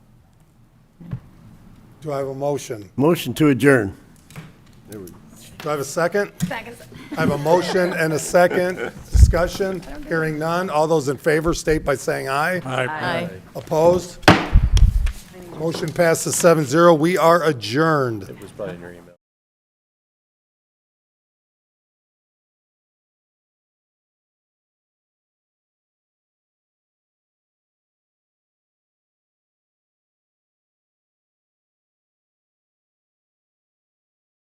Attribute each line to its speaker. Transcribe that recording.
Speaker 1: Do I have a motion?
Speaker 2: Motion to adjourn.
Speaker 1: Do I have a second?
Speaker 3: Seconds.
Speaker 1: I have a motion and a second. Discussion? Hearing none. All those in favor state by saying aye.
Speaker 3: Aye.
Speaker 1: Opposed? Motion passes seven zero. We are adjourned.
Speaker 4: It was probably in your email.